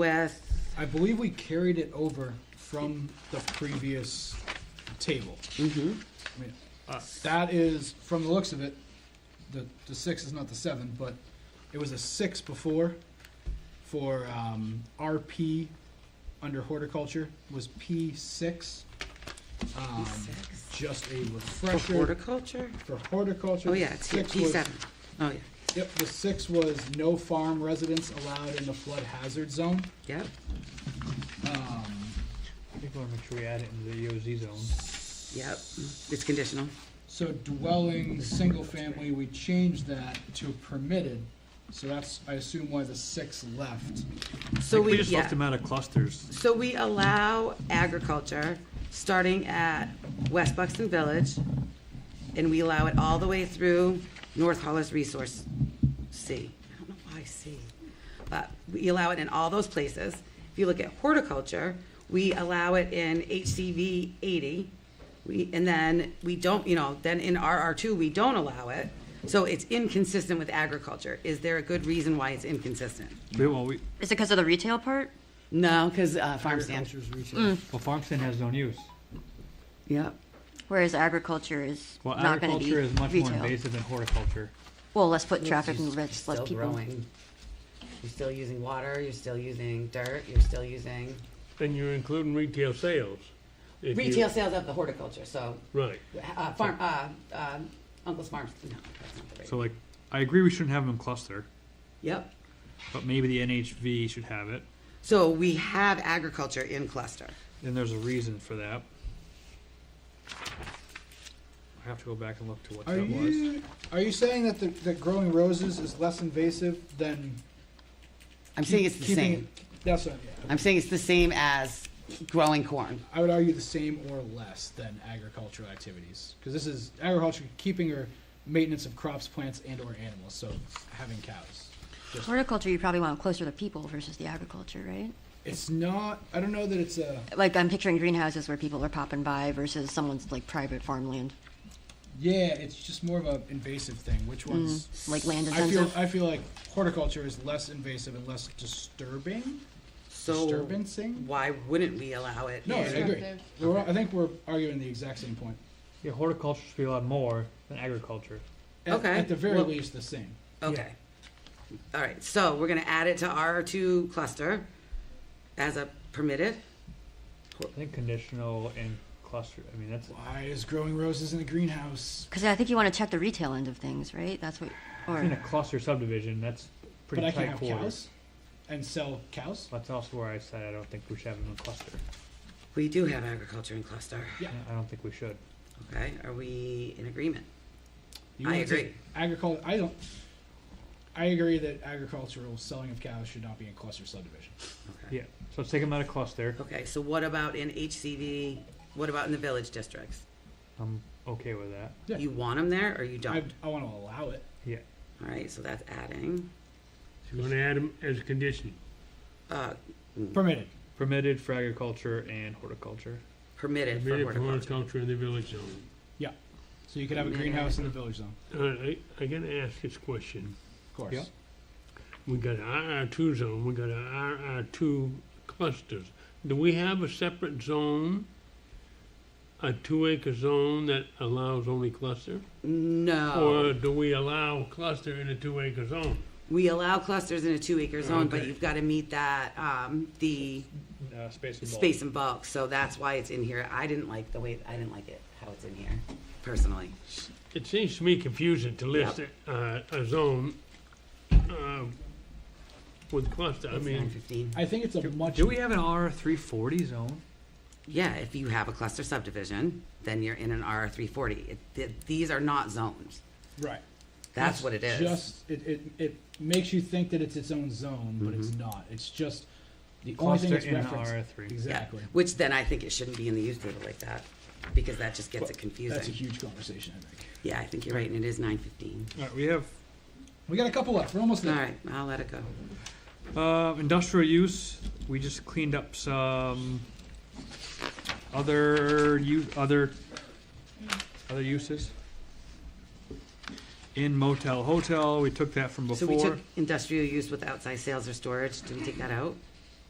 with, I believe we carried it over from the previous table. I mean, uh, that is, from the looks of it, the, the six is not the seven, but it was a six before for um, RP under horticulture was P six. Um, Just a for refresher horticulture? for horticulture. Oh, yeah, it's here, six was- P7. Oh, yeah, Yep, the six was no farm residents allowed in the flood hazard zone. yep. Um, I think we want to make sure we add it into E the EOZ zone. Yep, it's conditional. So dwelling, single family, we changed that to permitted, so that's, I assume why the six left. So We we, just left yeah, them out of clusters. so we allow agriculture, starting at West Buxton Village, and we allow it all the way through North Hollis Resource C. I don't know why C, but we allow it in all those places. If you look at horticulture, we allow it in HCV eighty. We, and then we don't, you know, then in RR two, we don't allow it. So it's inconsistent with agriculture. Is there a good reason why it's inconsistent? We- Well, we, Is it because of the retail part? No, because uh, farm stand. Agriculture's retail. Well, farm stand has no use. Yep. Whereas agriculture is Well, not going to be agriculture is much more retail. invasive than horticulture. Well, less foot traffic and You're less, less still people. growing. You're still using water. You're still using dirt. You're still using Then you're including retail sales. If you- retail sales of the horticulture. So Right. uh, farm, uh, um, Uncle's Farms. No, that's not the right. so like, I agree we shouldn't have them in cluster, yep. but maybe the NHV should have it. So we have agriculture in cluster. And there's a reason for that. I have to go back and look to what Are that was. you, are you saying that the, that growing roses is less invasive than? I'm saying it's the keeping same. it- That's what, yeah, I'm saying it's the same as growing corn. I would argue the same or less than agricultural activities, cause this is agriculture, keeping or maintenance of crops, plants and or animals, so having cows. Just- Horticulture, you probably want closer to people versus the agriculture, right? It's not, I don't know that it's a, Like I'm picturing greenhouses where people are popping by versus someone's like private farmland, yeah, it's just more of a invasive thing, Mm. which one's? like land I feel, intensive. I feel like horticulture is less invasive and less disturbing. So Disturbancing? why wouldn't we allow it? No, I in- agree. We're, I think we're arguing the exact same point. Yeah, horticulture should be allowed more than agriculture. At, Okay, At the very well- least, the same. Okay. All right, so we're gonna add it to R two cluster as a permitted. I think conditional and cluster, I mean, that's, Why is growing roses in a greenhouse? Because I think you want to check the retail end of things, right? That's what, in a or cluster subdivision, that's But pretty I can tight have quarters. cows and sell cows. That's also where I said I don't think we should have them in cluster. We do have agriculture in cluster, Yeah. I don't think we should. okay? Are we in agreement? You I wanna agree. take Agriculture. I don't. I agree that agricultural selling of cows should not be in cluster subdivision. Okay. Yeah, so let's take them out of cluster. Okay, so what about in HCV, what about in the village districts? I'm okay with that. Yeah. You want them there or you I, don't? I want to allow it. Yeah. All right, so that's adding, You're gonna add them as a condition. uh, Permitted. Permitted for agriculture and horticulture. permitted for Permitted for horticulture. horticulture in the village zone. Yeah. So you could have a Permitted. greenhouse in the village zone, All right, I, I gotta ask this question. of course. Yeah. We got a RR two zone, we got a RR two clusters. Do we have a separate zone? A two acre zone that allows only cluster? No, Or do we allow cluster in a two acre zone? we allow clusters in a two acre zone, but Okay. you've gotta meet that, um, the Uh, space and bulk. space and bulk, so that's why it's in here. I didn't like the way, I didn't like it, how it's in here, personally. It seems to me confusing to list uh, a zone uh, with cluster. I It's nine mean, fifteen. I think it's a much. Do we have an R three forty zone? Yeah, if you have a cluster subdivision, then you're in an R three forty. These are not zones. Right. That's It's what it is. Just it, it it makes you think that it's its own zone, but it's not. It's just the only thing Mm-hmm. Cluster that's in referenced. R three. Yeah, Exactly. Which then I think it shouldn't be in the use table like that, because that just gets it That's a confusing. huge conversation. I think Yeah, I think you're right, and it is nine fifteen. Alright, we have, we got a couple left. We're almost All there. right, I'll let it go. uh, industrial use, we just cleaned up some other u- other, other uses. In motel, hotel, we took that from So we took before. industrial use with outside sales or storage, did we take that out?